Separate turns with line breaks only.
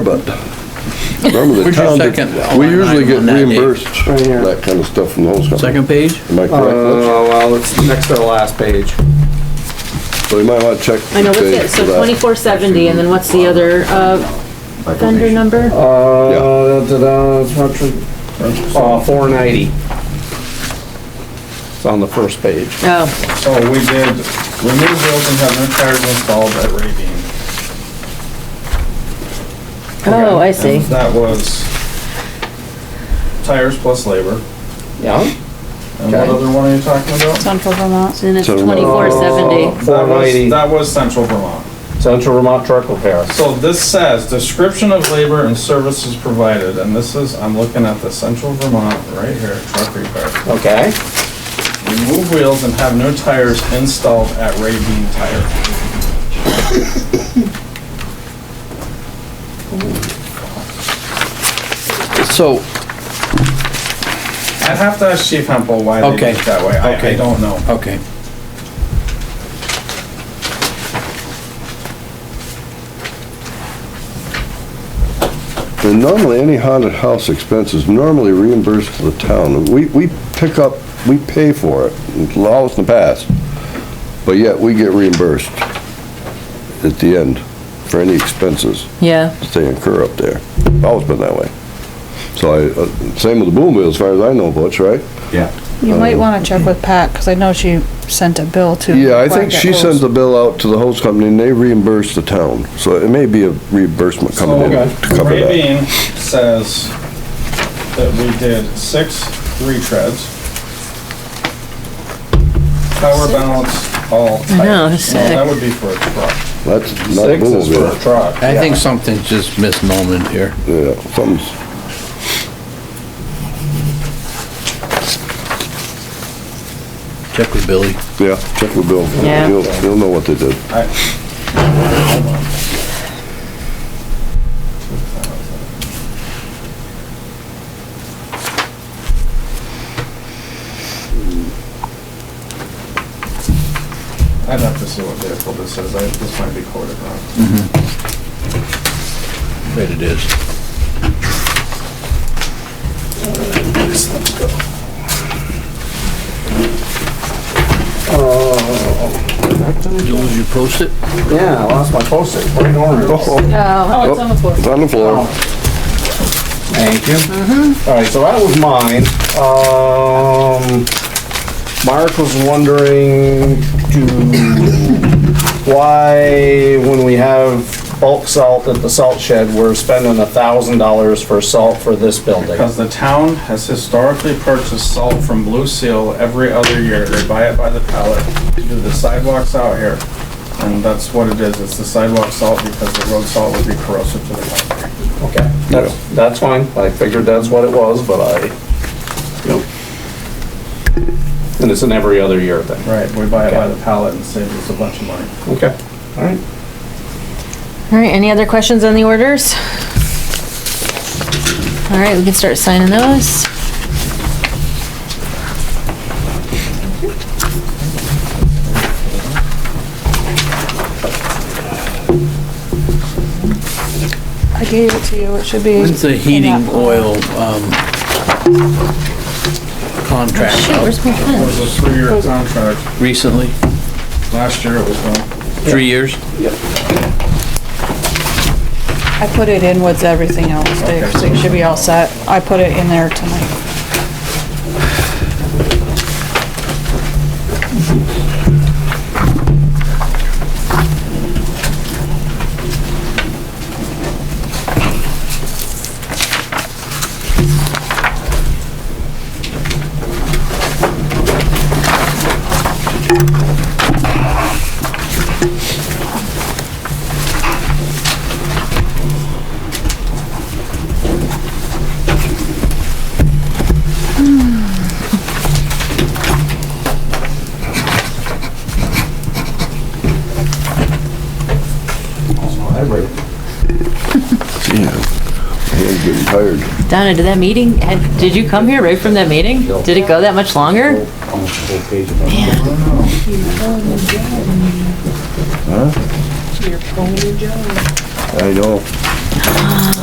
but remember the
Would you
town,
second Oh,
did-
on
we usually
item
get
on that, Dave?
reimbursed for
Right here.
that kind of stuff from the host company.
Second page?
Am I correct? Lutz?
Uh, well, it's next to the last page.
So you might want to check.
I know, what's
the
it,
page
so
for that.
twenty-four seventy, and then what's the other, uh, vendor number?
Uh, da-da-da, it's not true. Uh, four ninety. It's on the first page.
Oh,
So we did remove those and have new tires installed at Ravine.
oh, I see.
And That was tires plus labor.
Yeah.
And what
Okay.
other one are you talking about?
Central Vermont.
And it's
So, uh,
twenty-four
Oh.
seventy.
That was,
490.
that was Central Vermont.
Central Vermont Truck Repair.
So this says, description of labor and services provided, and this is, I'm looking at the Central Vermont right here, truck repair.
Okay.
Remove wheels and have new tires installed at Ravine Tire.
So,
I'd have to ask Chief Hempel why they
Okay.
did it that way. I, I
Okay.
don't know.
okay.
And normally, any haunted house expense is normally reimbursed to the town. We, we pick up, we pay for it, it's always in the past, but yet we get reimbursed at the end for any expenses
Yeah,
that they incur up there. Always been that way. So I, uh, same with the boom wheel, as far as I know, Butch, right?
You might want to check with Pat, because I know she sent a bill to.
Um, Yeah, I think she
Quacket
sends
Rules.
the bill out to the host company and they reimburse the town. So it may be a reimbursement coming in to
So
cover that.
Ravine says that we did six retreads. Power balance all types.
I know,
No,
sick.
That would be for a truck.
That's not
Six is for a
boom
truck.
I think something's just misnomered here.
wheel. Yeah, something's,
Check with Billy.
yeah, check with Bill.
Yeah.
He'll, he'll know what they did.
I- I'd have to see what vehicle this is. I, this might be quoted wrong.
Mm-hmm. Bet it is. Jules, you post it?
Yeah, I lost my postage. Right
Oh,
on.
Oh,
it's on the floor. It's on the floor.
Thank you. All right, so that was mine. Um, Mark was wondering to why, when we have bulk salt at the salt shed, we're spending a thousand dollars for salt for this building.
Because the town has historically purchased salt from Blue Seal every other year. They buy it by the pallet. They do the sidewalks out here. And that's what it is. It's the sidewalk salt because the road salt would be corrosive to the concrete.
Okay, that's, that's fine, I figured that's what it was, but I, you know. And it's an every other year thing.
Right, we buy it by the pallet and saves us a bunch of money.
Okay, all right.
All right, any other questions on the orders? All right, we can start signing those.
I gave it to you, it should be.
When's the
in
heating
that-
oil, um, contract
Shit,
up
where's my
It
pen?
was a three-year contract.
recently?
Last year it was one.
Three years?
I put it in with everything else, Dave, so you should be all set. I put it in there tonight.
Yeah. Hands getting tired.
Donna, did that meeting, had- did you come here right from that meeting? Did it go that much longer?
I know.